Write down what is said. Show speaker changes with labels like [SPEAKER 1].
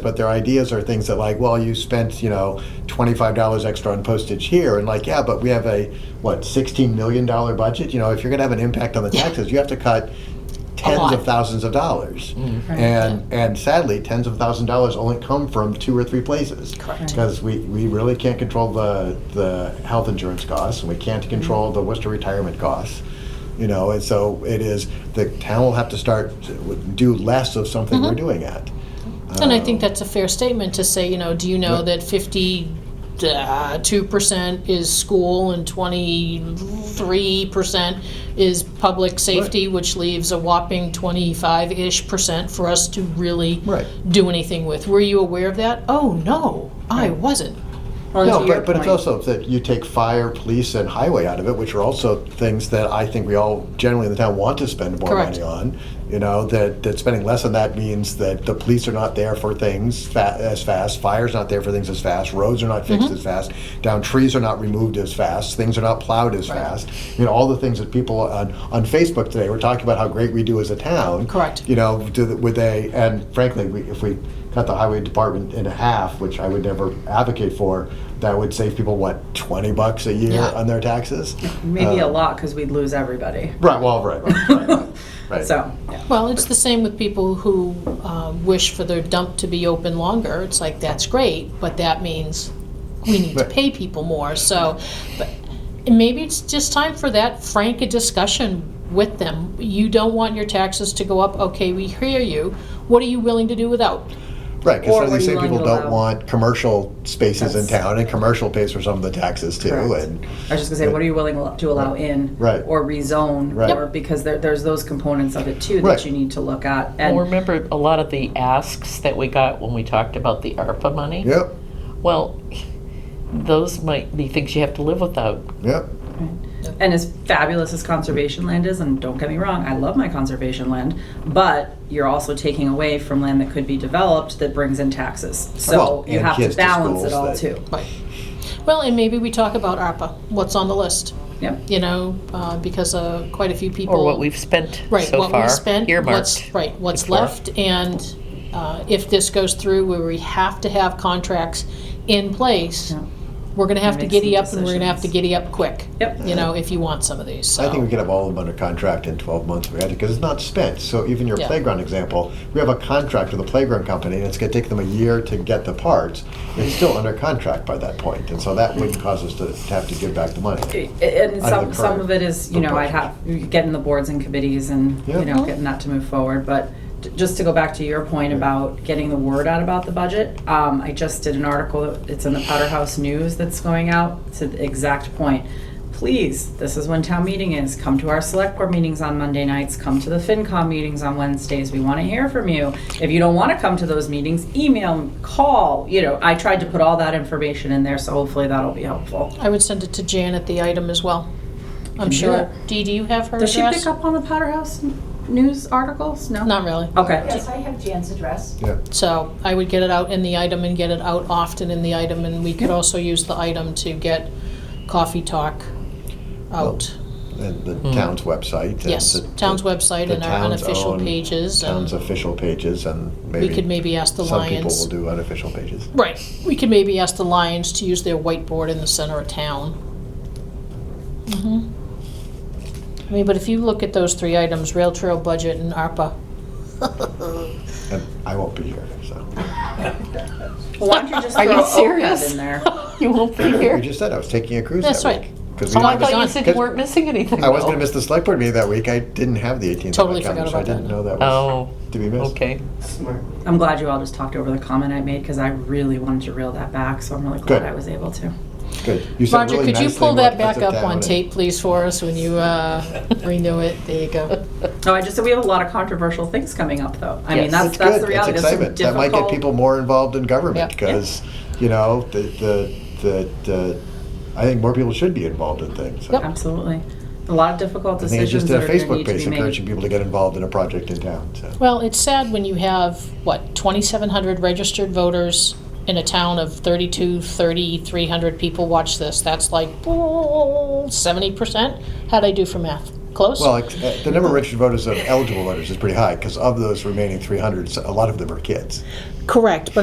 [SPEAKER 1] but their ideas are things that like, well, you spent you know twenty five dollars extra on postage here, and like, yeah, but we have a what sixteen million dollar budget. You know, if you're going to have an impact on the
[SPEAKER 2] Yeah.
[SPEAKER 1] taxes, you have to cut tens
[SPEAKER 2] lot. Mm-hmm.
[SPEAKER 1] of thousands of dollars,
[SPEAKER 2] Right.
[SPEAKER 1] and and sadly, tens of thousands of dollars only come from two or three places.
[SPEAKER 2] Correct.
[SPEAKER 1] Because we, we really can't control the the health insurance costs, and we
[SPEAKER 2] Mm-hmm.
[SPEAKER 1] can't control the Worcester retirement costs you know and so it is the town will have to start to do less of something
[SPEAKER 2] Mm-hmm.
[SPEAKER 1] we're doing at
[SPEAKER 2] Uh, And I think that's a fair statement to say, you know, do you know that 52% is school and 23% is public safety, which leaves a whopping 25 ish percent for us to really
[SPEAKER 1] Right.
[SPEAKER 2] do anything with? Were you aware of that? Oh, no, I wasn't. Or
[SPEAKER 1] no
[SPEAKER 2] to your
[SPEAKER 1] but, but it's
[SPEAKER 2] point.
[SPEAKER 1] also that you take fire police and highway out of it which are also things that i think we all generally in the town want to spend more
[SPEAKER 2] Correct.
[SPEAKER 1] money on you know that, that spending less on that means that the police are not there for things fa- as fast fire's not there for things as fast roads are not
[SPEAKER 2] Mm-hmm.
[SPEAKER 1] fixed as fast down trees are not removed as fast things are not plowed as fast you know all the things that people on, on facebook today were talking about how great we do as a town
[SPEAKER 2] Correct.
[SPEAKER 1] you know, do the, would they? And frankly, we, if we cut the highway department in half, which I would never advocate for, that would save people what twenty bucks a year
[SPEAKER 2] Yeah.
[SPEAKER 1] on their taxes.
[SPEAKER 3] Maybe a
[SPEAKER 1] Um,
[SPEAKER 3] lot because we'd lose everybody.
[SPEAKER 1] Right. Well, right. Right. right, right, right.
[SPEAKER 3] So, yeah.
[SPEAKER 2] Well, it's the same with people who uh, wish for their dump to be open longer. It's like, that's great, but that means we need to
[SPEAKER 1] Right.
[SPEAKER 2] pay people more. So, but and maybe it's just time for that frank a discussion with them. You don't want your taxes to go up. Okay, we hear you. What are you willing to do without?
[SPEAKER 1] Right. Because
[SPEAKER 3] Or
[SPEAKER 1] some of these
[SPEAKER 3] what
[SPEAKER 1] same
[SPEAKER 3] you
[SPEAKER 1] people
[SPEAKER 3] want to
[SPEAKER 1] don't
[SPEAKER 3] allow.
[SPEAKER 1] want commercial spaces in
[SPEAKER 3] That's-
[SPEAKER 1] town, and commercial pays for some of the taxes too.
[SPEAKER 3] Correct.
[SPEAKER 1] And
[SPEAKER 3] I was just gonna say, what are you willing to allow in?
[SPEAKER 1] Right.
[SPEAKER 3] Or rezone?
[SPEAKER 1] Right.
[SPEAKER 3] Or, because there, there's those components of it too
[SPEAKER 1] Right.
[SPEAKER 3] that you need to look at.
[SPEAKER 4] Well,
[SPEAKER 3] And
[SPEAKER 4] remember a lot of the asks that we got when we talked about the ARPA money?
[SPEAKER 1] yep.
[SPEAKER 4] Well, those might be things you have to live without.
[SPEAKER 1] Yep.
[SPEAKER 3] And as fabulous as conservation land is, and don't get me wrong, I love my conservation land, but you're also taking away from land that could be developed that brings in taxes.
[SPEAKER 1] Well,
[SPEAKER 3] So you
[SPEAKER 1] and
[SPEAKER 3] have
[SPEAKER 1] kids
[SPEAKER 3] to
[SPEAKER 1] to
[SPEAKER 3] balance
[SPEAKER 1] schools
[SPEAKER 3] it all
[SPEAKER 1] that-
[SPEAKER 3] too.
[SPEAKER 2] Right. Well, and maybe we talk about ARPA. What's on the list?
[SPEAKER 3] Yep.
[SPEAKER 2] You know, uh, because uh, quite a few people.
[SPEAKER 4] Or what we've spent
[SPEAKER 2] Right,
[SPEAKER 4] so
[SPEAKER 2] what
[SPEAKER 4] far.
[SPEAKER 2] we've spent, what's,
[SPEAKER 4] earmarked.
[SPEAKER 2] right, what's
[SPEAKER 4] before.
[SPEAKER 2] left, and uh, if this goes through where we have to have contracts in place,
[SPEAKER 3] Yeah.
[SPEAKER 2] we're gonna have to
[SPEAKER 3] Make
[SPEAKER 2] giddy
[SPEAKER 3] some
[SPEAKER 2] up, and we're gonna have to
[SPEAKER 3] decisions.
[SPEAKER 2] giddy up quick,
[SPEAKER 3] Yep.
[SPEAKER 2] you know, if you want some of these,
[SPEAKER 1] I think we
[SPEAKER 2] so.
[SPEAKER 1] could have all of them under contract in 12 months if we had to, because it's not spent. So even your
[SPEAKER 2] Yeah.
[SPEAKER 1] playground example, we have a contract with a playground company, and it's going to take them a year to get the parts. It's still under contract by that point, and so that wouldn't cause us to, to have to give back the money.
[SPEAKER 3] and
[SPEAKER 1] Out of
[SPEAKER 3] some
[SPEAKER 1] the
[SPEAKER 3] some
[SPEAKER 1] current
[SPEAKER 3] of it is you know I
[SPEAKER 1] proportions.
[SPEAKER 3] have getting the boards and committees and
[SPEAKER 1] Yeah.
[SPEAKER 3] you know getting that to move forward. But t- just to go back to your point about getting the word out about the budget, um, I just did an article. It's in the Powderhouse News that's going out to the exact point. Please, this is when town meeting is. Come to our select board meetings on Monday nights. Come to the FinCom meetings on Wednesdays. We want to hear from you. If you don't want to come to those meetings, email, call. You know, I tried to put all that information in there, so hopefully that'll be helpful.
[SPEAKER 2] I would send it to Janet, the item as well, I'm
[SPEAKER 3] do
[SPEAKER 2] sure.
[SPEAKER 3] that.
[SPEAKER 2] Dee, do you have her
[SPEAKER 3] Does she
[SPEAKER 2] address?
[SPEAKER 3] pick up on the Powderhouse n- news articles? No.
[SPEAKER 2] Not really,
[SPEAKER 3] Okay.
[SPEAKER 5] Yes, I have Jan's address.
[SPEAKER 1] Yeah.
[SPEAKER 2] so I would get it out in the item and get it out often in the item, and we could also use the item to get coffee talk out.
[SPEAKER 1] And the town's website. and
[SPEAKER 2] Yes,
[SPEAKER 1] the-
[SPEAKER 2] town's
[SPEAKER 1] the-
[SPEAKER 2] website
[SPEAKER 1] the
[SPEAKER 2] and our
[SPEAKER 1] town's
[SPEAKER 2] unofficial
[SPEAKER 1] own-
[SPEAKER 2] pages.
[SPEAKER 1] Town's
[SPEAKER 2] and
[SPEAKER 1] official pages, and maybe.
[SPEAKER 2] We could maybe ask the
[SPEAKER 1] Some people will
[SPEAKER 2] Lions.
[SPEAKER 1] do unofficial pages.
[SPEAKER 2] Right, we could maybe ask the Lions to use their whiteboard in the center of town. Mhm. Mm-hmm. I mean, but if you look at those three items, rail trail budget and ARPA,
[SPEAKER 1] And I won't be here, so.
[SPEAKER 3] Well, why don't you just
[SPEAKER 4] Are you
[SPEAKER 3] throw OPEB
[SPEAKER 4] serious?
[SPEAKER 3] in there?
[SPEAKER 4] You won't be
[SPEAKER 1] You
[SPEAKER 4] here.
[SPEAKER 1] just said I was taking a cruise
[SPEAKER 2] That's
[SPEAKER 1] that
[SPEAKER 2] right.
[SPEAKER 1] week. 'cause we
[SPEAKER 4] Oh, I
[SPEAKER 1] wanted to-
[SPEAKER 4] thought you said you weren't missing anything.
[SPEAKER 1] I was
[SPEAKER 4] though.
[SPEAKER 1] going to miss the select board meeting that week. I didn't have the 18th.
[SPEAKER 2] Totally
[SPEAKER 1] on my calendar,
[SPEAKER 2] forgot
[SPEAKER 1] so I
[SPEAKER 2] about that.
[SPEAKER 1] didn't know that was
[SPEAKER 4] Oh,
[SPEAKER 1] to be missed.
[SPEAKER 4] okay.
[SPEAKER 3] I'm glad you all just talked over the comment I made because I really wanted to reel that back, so I'm really glad
[SPEAKER 1] Good.
[SPEAKER 3] I was able to.
[SPEAKER 1] Good. You said
[SPEAKER 2] Roger,
[SPEAKER 1] really
[SPEAKER 2] could you
[SPEAKER 1] nicely
[SPEAKER 2] pull
[SPEAKER 1] what
[SPEAKER 2] that
[SPEAKER 1] to put
[SPEAKER 2] back up
[SPEAKER 1] down
[SPEAKER 2] on
[SPEAKER 1] and-
[SPEAKER 2] tape, please, for us when you uh, renew it? There you go.
[SPEAKER 3] No, Oh, I just said we have a lot of controversial things coming up, though. I mean,
[SPEAKER 4] Yes.
[SPEAKER 3] that's
[SPEAKER 1] That's
[SPEAKER 3] that's
[SPEAKER 1] good.
[SPEAKER 3] the
[SPEAKER 1] that's
[SPEAKER 3] reality. There's some
[SPEAKER 1] excitement. That might get
[SPEAKER 3] difficult-
[SPEAKER 1] people more involved in government
[SPEAKER 2] Yeah.
[SPEAKER 1] because, you know, the, the, the, the, I think more people should be involved in things. So.
[SPEAKER 2] Yep.
[SPEAKER 3] Absolutely, a lot of difficult
[SPEAKER 1] I think I
[SPEAKER 3] decisions
[SPEAKER 1] just did
[SPEAKER 3] that
[SPEAKER 1] a
[SPEAKER 3] are going to
[SPEAKER 1] Facebook
[SPEAKER 3] need to
[SPEAKER 1] page
[SPEAKER 3] be made.
[SPEAKER 1] encouraging people to get involved in a project in town. So.
[SPEAKER 2] Well, it's sad when you have, what, 2,700 registered voters in a town of 32, 30, 300 people watch this. That's like oh, 70%. How'd I do for math? Close?
[SPEAKER 1] Well, ex- uh, the number of registered voters of eligible voters is pretty high because of those remaining 300, a lot of them are kids.
[SPEAKER 2] Correct, but